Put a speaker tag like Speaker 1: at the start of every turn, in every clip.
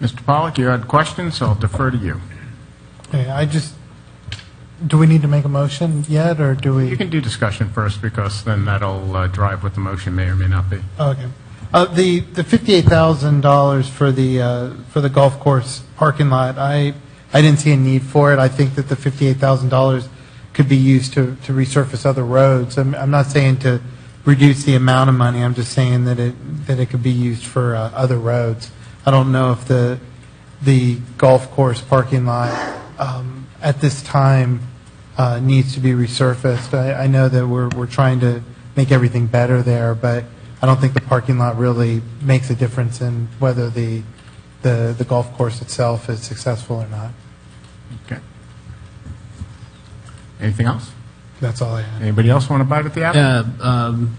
Speaker 1: Mr. Pollak, you had questions, so I'll defer to you.
Speaker 2: Okay, I just, do we need to make a motion yet, or do
Speaker 1: You
Speaker 2: we?
Speaker 1: can do discussion first, because then that'll uh, drive what the motion may or may not be.
Speaker 2: Okay. Uh, the, the fifty-eight thousand dollars for the, uh, for the golf course parking lot, I, I didn't see a need for it. I think that the fifty-eight thousand dollars could be used to, to resurface other roads. I'm, I'm not saying to reduce the amount of money, I'm just saying that it, that it could be used for, uh, other roads. I don't know if the, the golf course parking lot, um, at this time, uh, needs to be resurfaced. I, I know that we're, we're trying to make everything better there, but I don't think the parking lot really makes a difference in whether the, the, the golf course itself is successful or not.
Speaker 1: Okay. Anything else?
Speaker 2: That's all I have.
Speaker 1: Anybody else want to bite at the apple?
Speaker 3: Yeah, um,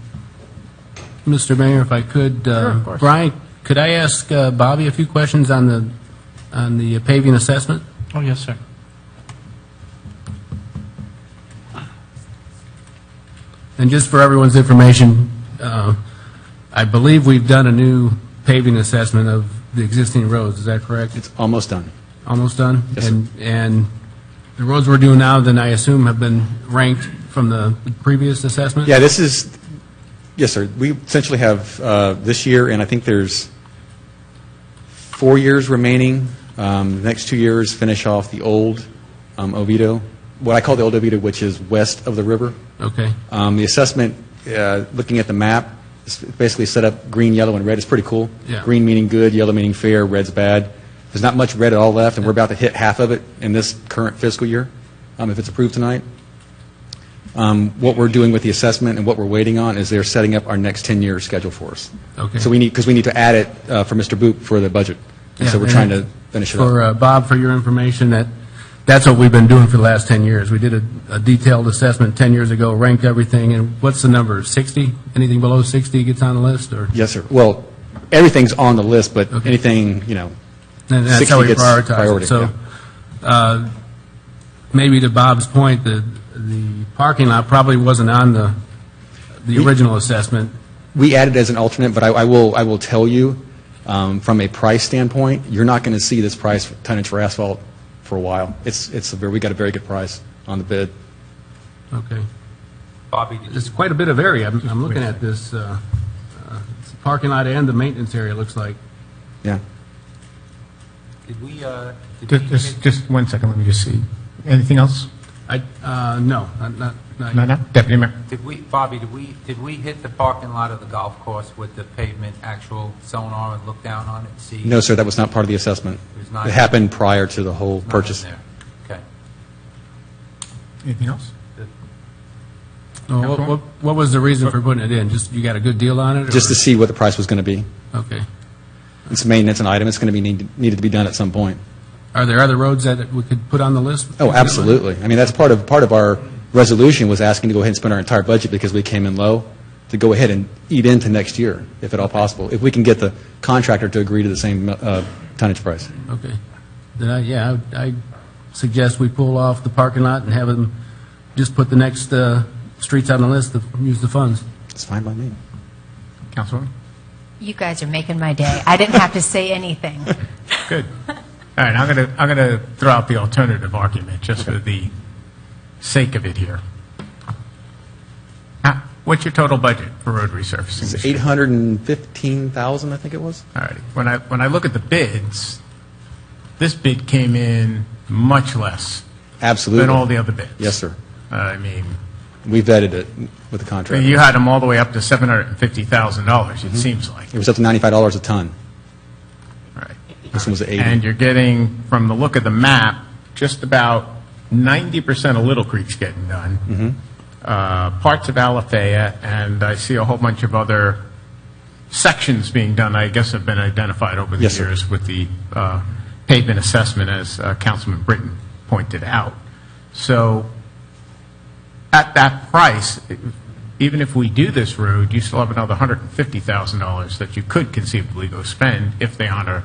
Speaker 3: Mr. Mayor, if I could, uh,
Speaker 1: Sure, of course.
Speaker 3: Brian, could I ask uh, Bobby a few questions on the, on the paving assessment?
Speaker 4: Oh, yes, sir.
Speaker 3: And just for everyone's information, uh, I believe we've done a new paving assessment of the existing roads, is that correct? It's
Speaker 5: It's almost done.
Speaker 3: almost done?
Speaker 5: Yes, sir.
Speaker 3: And, and the roads we're doing now, then I assume have been ranked from the previous assessment?
Speaker 5: Yeah, this is, yes, sir, we essentially have uh, this year, and I think there's four years remaining. Um, The next two years finish off the old um, Oviedo, what I call the old Oviedo, which is west of the river.
Speaker 3: Okay,
Speaker 5: Um, The assessment, uh, looking at the map, it's basically set up green, yellow, and red. It's pretty cool.
Speaker 3: Yeah.
Speaker 5: Green meaning good, yellow meaning fair, red's bad. There's not much red at all left, and we're about to hit half of it in this current fiscal year, um, if it's approved tonight. Um, What we're doing with the assessment and what we're waiting on is they're setting up our next 10-year schedule for us.
Speaker 3: Okay.
Speaker 5: So we need, because we need to add it uh, for Mr. Boop for the budget. And so
Speaker 3: Yeah,
Speaker 5: we're trying to
Speaker 3: and
Speaker 5: finish it up.
Speaker 3: For uh, Bob, for your information, that, that's what we've been doing for the last 10 years. We did a a detailed assessment 10 years ago, ranked everything, and what's the number, 60? Anything below 60 gets on the list, or?
Speaker 5: Yes, sir. Well, everything's on the list, but
Speaker 3: Okay.
Speaker 5: anything, you know,
Speaker 3: And that's how
Speaker 5: 60
Speaker 3: we
Speaker 5: gets
Speaker 3: prioritize
Speaker 5: priority,
Speaker 3: it. So,
Speaker 5: yeah.
Speaker 3: uh, maybe to Bob's point, the, the parking lot probably wasn't on the, the original assessment.
Speaker 5: We added as an alternate, but I, I will, I will tell you, um, from a price standpoint, you're not going to see this price for tonnage for asphalt for a while. It's, it's a very, we got a very good price on the bid.
Speaker 3: Okay. Bobby. It's quite a bit of area. I'm, I'm looking at this, uh, uh, it's the parking lot and the maintenance area, it looks like.
Speaker 5: Yeah.
Speaker 4: Did we, uh, did
Speaker 1: Just-
Speaker 4: we
Speaker 1: Just,
Speaker 4: make-
Speaker 1: just one second, let me just see. Anything else?
Speaker 3: I, uh, no, not, not- not.
Speaker 1: No, no? Deputy Mayor?
Speaker 4: did we, Bobby, did we, did we hit the parking lot of the golf course with the pavement actual sonar and look down on it, see?
Speaker 5: No, sir, that was not part of the assessment.
Speaker 4: It was not-
Speaker 5: It happened prior to the whole
Speaker 4: Nothing
Speaker 5: purchase.
Speaker 4: there. Okay.
Speaker 1: Anything else?
Speaker 3: Well, What, what- what was the reason for putting it in? Just, you got a good deal on it? or-
Speaker 5: Just to see what the price was going to be.
Speaker 3: Okay.
Speaker 5: It's a maintenance an item. It's going to be need, needed to be done at some point.
Speaker 3: Are there other roads that we could put on the list?
Speaker 5: Oh, absolutely. I mean, that's part of, part of our resolution was asking to go ahead and spend our entire budget because we came in low, to go ahead and eat into next year, if at all possible, if we can get the contractor to agree to the same uh, tonnage price.
Speaker 3: Okay. Then I, yeah, I I suggest we pull off the parking lot and have them just put the next, uh, streets on the list to use the funds.
Speaker 5: It's fine by me.
Speaker 1: Councilwoman?
Speaker 6: You guys are making my day. I didn't have to say anything.
Speaker 1: Good. All right, I'm going to, I'm going to throw out the alternative argument, just for the sake of it here. Ah, What's your total budget for road resurfacing?
Speaker 5: It's
Speaker 1: this year?
Speaker 5: 815,000, I think it was?
Speaker 1: All righty. When I, when I look at the bids, this bid came in much less
Speaker 5: Absolutely.
Speaker 1: than all the other bids.
Speaker 5: Yes, sir.
Speaker 1: I mean,
Speaker 5: We vetted it with the contractor.
Speaker 1: you had them all the way up to $750,000,
Speaker 5: Mm-hmm.
Speaker 1: it seems like.
Speaker 5: It was up to $95 a ton.
Speaker 1: Right.
Speaker 5: This one was 80.
Speaker 1: And you're getting, from the look of the map, just about 90% of Little Creek's getting
Speaker 5: Mm-hmm.
Speaker 1: done. Uh, Parts of Alafaya, and I see a whole bunch of other sections being done, I guess have been identified over the
Speaker 5: Yes, sir.
Speaker 1: years with the uh, pavement assessment, as uh, Councilman Britton pointed out. So at that price, even if we do this road, you still have another $150,000 that you could conceivably go spend if they honor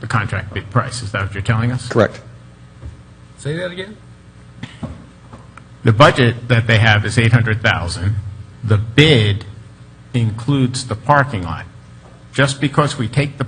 Speaker 1: the contract bid price. Is that what you're telling us?
Speaker 5: Correct.
Speaker 3: Say that again?
Speaker 1: The budget that they have is 800,000. The bid includes the parking lot. Just because we take the